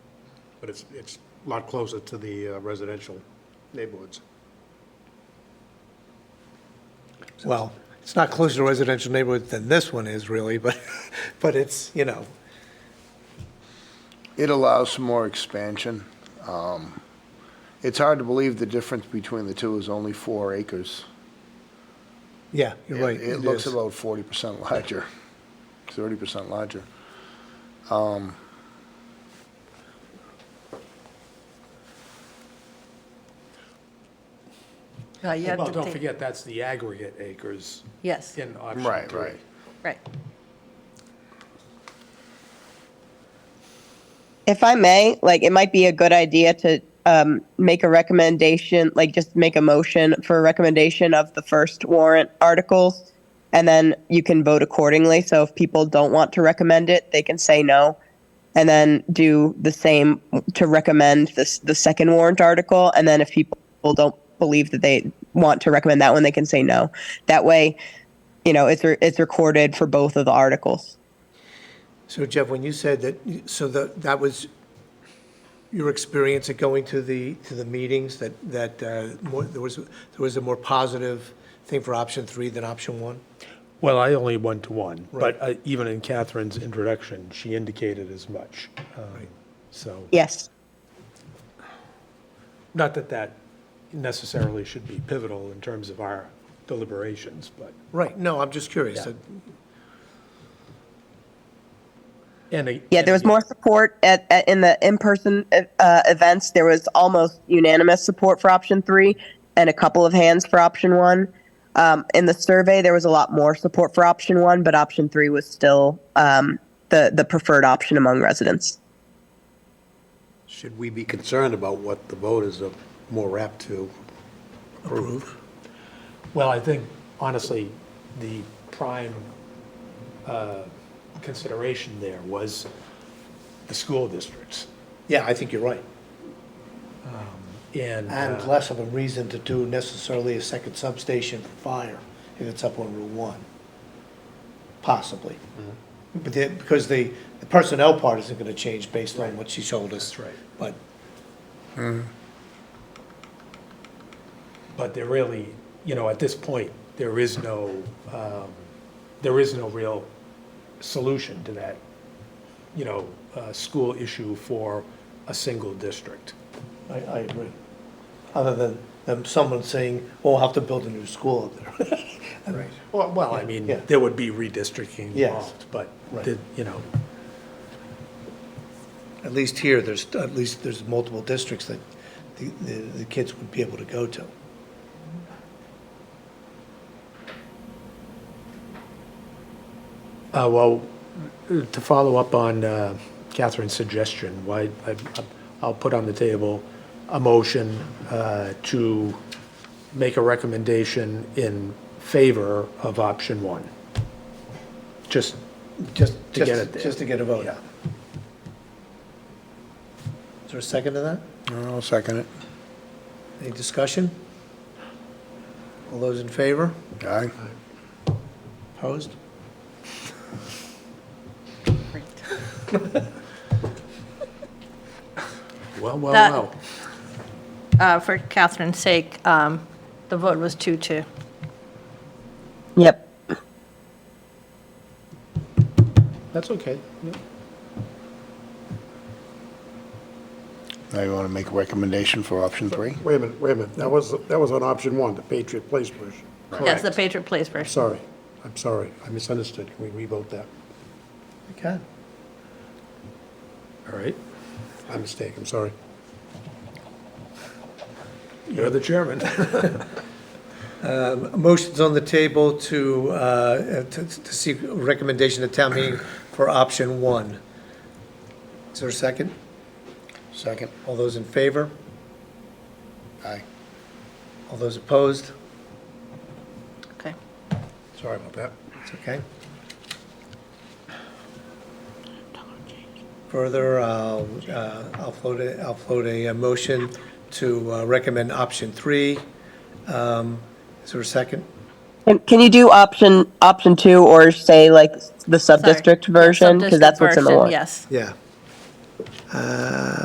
but it's, it's a lot closer to the uh, residential neighborhoods. Well, it's not closer to residential neighborhood than this one is really, but, but it's, you know, It allows some more expansion. Um, It's hard to believe the difference between the two is only four acres. yeah, you're right. It- It looks is. about forty percent larger, thirty percent larger. Now, Uh, you have Well, to don't take- forget, that's the aggregate acres Yes, in option Right, three. right. right. If I may, like it might be a good idea to um, make a recommendation, like just make a motion for a recommendation of the first warrant articles, and then you can vote accordingly. So if people don't want to recommend it, they can say no, and then do the same to recommend this the second warrant article. And then if people don't believe that they want to recommend that one, they can say no. That way, you know, it's re- it's recorded for both of the articles. So Jeff, when you said that, so that, that was your experience at going to the, to the meetings, that, that uh, more, there was, there was a more positive thing for option three than option one? Well, I only went to one, Right. but uh, even in Catherine's introduction, she indicated as much. um, So, Yes. not that that necessarily should be pivotal in terms of our deliberations, but, Right, no, I'm just curious. Yeah. Uh, That- and. a- Yeah, there was more support at, at in the in-person uh, events. There was almost unanimous support for option three, and a couple of hands for option one. Um, in the survey, there was a lot more support for option one, but option three was still um, the the preferred option among residents. Should we be concerned about what the voters are more apt to approve? Well, I think honestly, the prime uh, consideration there was the school districts. Um, Yeah, I think you're right. And, And uh, less of a reason to do necessarily a second substation for fire if it's up on Route 1, possibly. But the, because the, the personnel part isn't gonna change based on what she told us. That's right. But, but there really, you know, at this point, there is no, um, there is no real solution to that, you know, uh, school issue for a single district. I, I agree. Other than, than someone saying, oh, we'll have to build a new school up there. Right. Well, well, I mean, Yeah. there would be redistricting Yes. involved, but, Right. the- you know, At least here, there's, at least there's multiple districts that the, the, the kids would be able to go to. Uh, Well, to follow up on uh, Catherine's suggestion, why, I- I'll put on the table a motion uh, to make a recommendation in favor of option one. Just, Just, To get it there. Just to get a vote. Yeah. Is there a second to that? I'll second it. Any discussion? All those in favor? Aye. Opposed? well, well, That- well. Uh, For Catherine's sake, um, the vote was 2-2. Yep. That's okay. Yeah. Now you want to make a recommendation for option three? Wait a minute, wait a minute, that was, that was on option one, the Patriot Place version. Yes, the Patriot Place version. Sorry, I'm sorry, I misunderstood, can we revote that? Okay. All right. My mistake, I'm sorry. You're the chairman. Motion's on the table to, uh, to to seek recommendation at town meeting for option one. Is there a second? Second. All those in favor? Aye. All those opposed? Okay. Sorry about that. It's okay. Further, I'll, uh, I'll float a, I'll float a uh, motion to uh, recommend option three. Um, Is there a second? Can, can you do option option two or say like the sub Sorry. district version because Subdistrict that's what's in the version, warrant? Yes. Yeah.